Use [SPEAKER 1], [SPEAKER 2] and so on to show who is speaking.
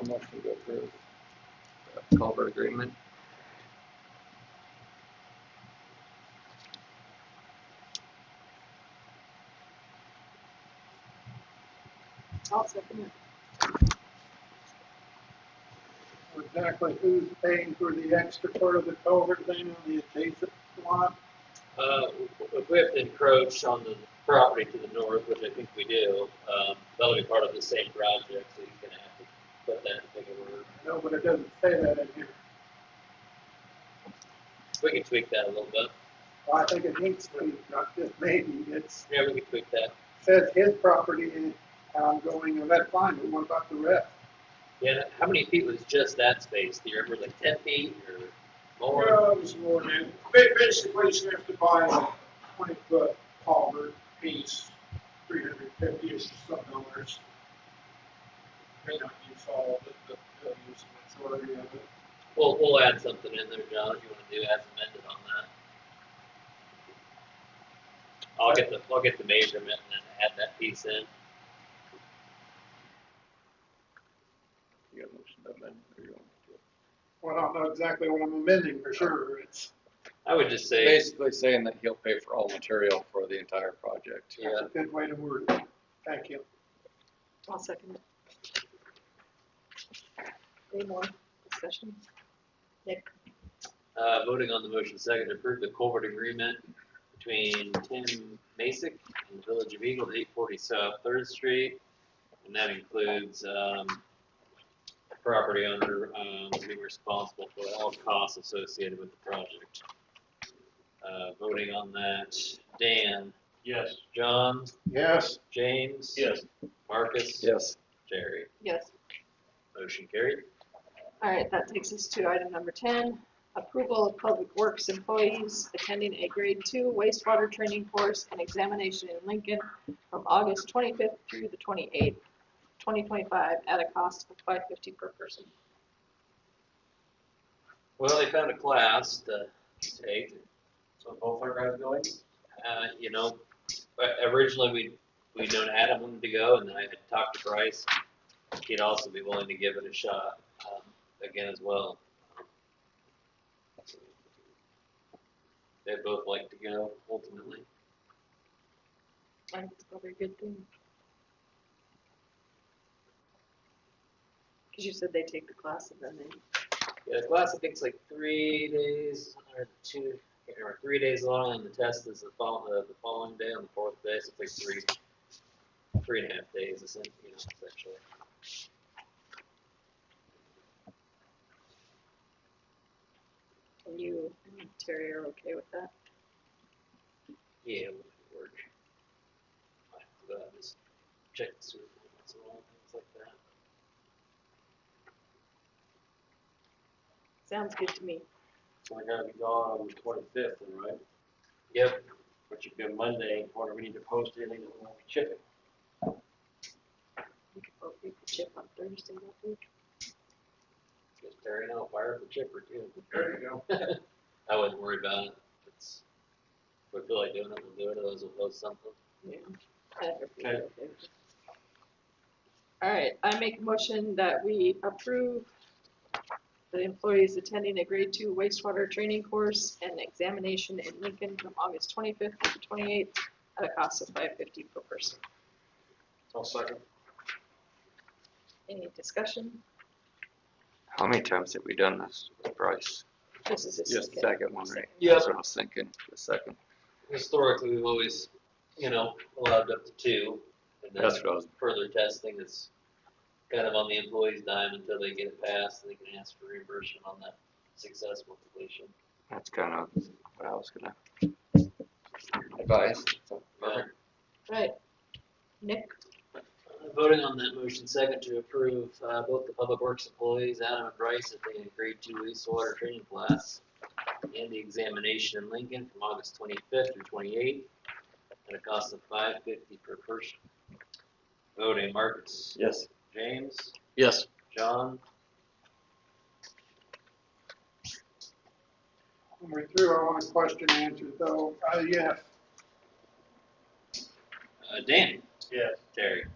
[SPEAKER 1] a motion to approve.
[SPEAKER 2] the culvert agreement.
[SPEAKER 3] I'll second it.
[SPEAKER 4] Exactly who's paying for the extra part of the culvert thing on the adjacent lot?
[SPEAKER 5] Uh, if we have to encroach on the property to the north, which I think we do, um, that'll be part of the same project, so he's gonna have to put that in bigger word.
[SPEAKER 4] No, but it doesn't say that in here.
[SPEAKER 5] We can tweak that a little bit.
[SPEAKER 4] Well, I think it needs to be, not just maybe, it's,
[SPEAKER 5] Yeah, we can tweak that.
[SPEAKER 4] says his property and ongoing, and that's fine, but what about the rest?
[SPEAKER 5] Yeah, how many feet was just that space? Do you remember, like ten feet or more?
[SPEAKER 4] Well, it was more than, ba- basically, you have to buy a twenty-foot culvert piece, three hundred fifty-ish or some dollars. May not use all of it, but they'll use the majority of it.
[SPEAKER 5] We'll, we'll add something in there, John, if you wanna do, add some amended on that. I'll get the, I'll get the measurement and then add that piece in.
[SPEAKER 1] You got a motion to amend, or you want to do it?
[SPEAKER 4] Well, I don't know exactly what I'm amending for sure, it's,
[SPEAKER 5] I would just say,
[SPEAKER 2] Basically saying that he'll pay for all material for the entire project.
[SPEAKER 5] yeah,
[SPEAKER 4] that's a good way to word it, thank you.
[SPEAKER 3] I'll second it. Any more discussion? Nick,
[SPEAKER 5] Uh, voting on the motion second to approve the culvert agreement between Tim Masick and the Village of Eagle, eight forty South Third Street. And that includes, um, property owner, um, being responsible for all costs associated with the project. Uh, voting on that, Dan,
[SPEAKER 6] Yes.
[SPEAKER 5] John,
[SPEAKER 4] Yes.
[SPEAKER 5] James.
[SPEAKER 6] Yes.
[SPEAKER 5] Marcus.
[SPEAKER 2] Yes.
[SPEAKER 5] Jerry,
[SPEAKER 3] yes.
[SPEAKER 5] motion carried.
[SPEAKER 3] All right, that takes us to item number ten, approval of public works employees attending a grade two wastewater training course and examination in Lincoln from August twenty-fifth through the twenty-eighth, twenty twenty-five, at a cost of five fifty per person.
[SPEAKER 5] Well, they found a class to take,
[SPEAKER 6] So both our guys going?
[SPEAKER 5] uh, you know, but originally we we known Adam wanted to go, and then I had talked to Bryce. He'd also be willing to give it a shot um, again as well. They both like to go ultimately.
[SPEAKER 3] I think it's probably a good thing. Cause you said they take the class and then they,
[SPEAKER 5] Yeah, the class I think is like three days or two or three days long, and the test is the fall the, the following day on the fourth day. So it's like three three and a half days, essentially. You know, essentially.
[SPEAKER 3] and you and Terry are okay with that?
[SPEAKER 5] Yeah, it would work. I have to go out and just check the sewer limits and all things like that.
[SPEAKER 3] Sounds good to me.
[SPEAKER 6] So I gotta be gone on the twenty-fifth, right?
[SPEAKER 5] Yep,
[SPEAKER 6] Which would be Monday, whether we need to post anything that won't be chipping.
[SPEAKER 3] We could vote, we could chip on Thursday, that week.
[SPEAKER 5] just tearing out fire for chipper too.
[SPEAKER 4] There you go.
[SPEAKER 5] I wouldn't worry about it. It's, if I feel like doing it, we'll do it, otherwise we'll post something.
[SPEAKER 3] Yeah. All right, I make a motion that we approve the employees attending a grade two wastewater training course and examination in Lincoln from August twenty-fifth to twenty-eighth at a cost of five fifty per person.
[SPEAKER 6] I'll second.
[SPEAKER 3] Any discussion?
[SPEAKER 2] How many times have we done this with Bryce?
[SPEAKER 3] This is a
[SPEAKER 2] Just
[SPEAKER 3] second.
[SPEAKER 2] the second one, right?
[SPEAKER 5] Yeah.
[SPEAKER 2] That's what I was thinking, the second.
[SPEAKER 5] Historically, we've always, you know, allowed up to two. and then
[SPEAKER 2] That's what I was,
[SPEAKER 5] Further testing is kind of on the employee's dime until they get it passed and they can ask for reimbursement on that successful completion.
[SPEAKER 2] that's kind of what I was gonna advise.
[SPEAKER 5] Yeah.
[SPEAKER 3] Right. Nick?
[SPEAKER 5] Uh, Voting on that motion second to approve uh, both the public works employees, Adam and Bryce, if they agreed to wastewater training class and the examination in Lincoln from August twenty-fifth through twenty-eighth at a cost of five fifty per person. Voting Marcus,
[SPEAKER 6] Yes.
[SPEAKER 5] James,
[SPEAKER 6] Yes.
[SPEAKER 5] John,
[SPEAKER 4] When we're through, I want a question answered though, uh, yes.
[SPEAKER 5] uh, Dan,
[SPEAKER 6] Yes.
[SPEAKER 5] Terry.